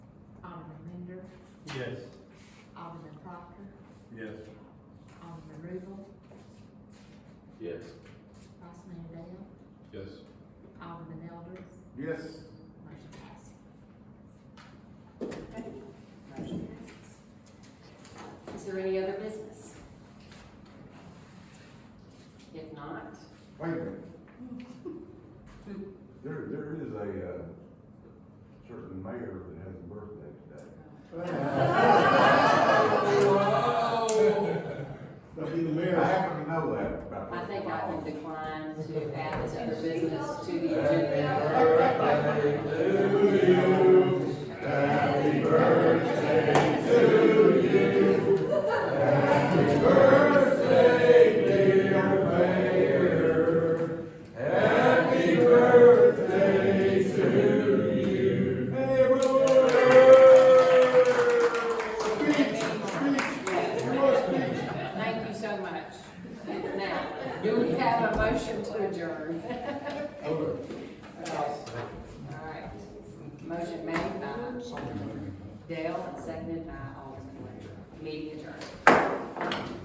Yes. Alderman Proctor, Yes. Alderman Rubel, Yes. Vice Mayor Dale, Yes. Alderman Elders, Yes. motion passes. Okay, Motion passes. Is there any other business? If not, Wait a minute. There, there is a, uh, certain mayor that has a birthday today. That'd be the I happen to know that about. I think I can decline to add this other business to the Uh, agenda. can. Happy birthday to you. Happy birthday, dear mayor. Happy birthday to you. Hey, brother. Speech, speech. Thank you so much. Now, do we have a motion to adjourn? Yes. All right. Motion made by Dale and seconded by Alderman Ware. Meeting adjourned.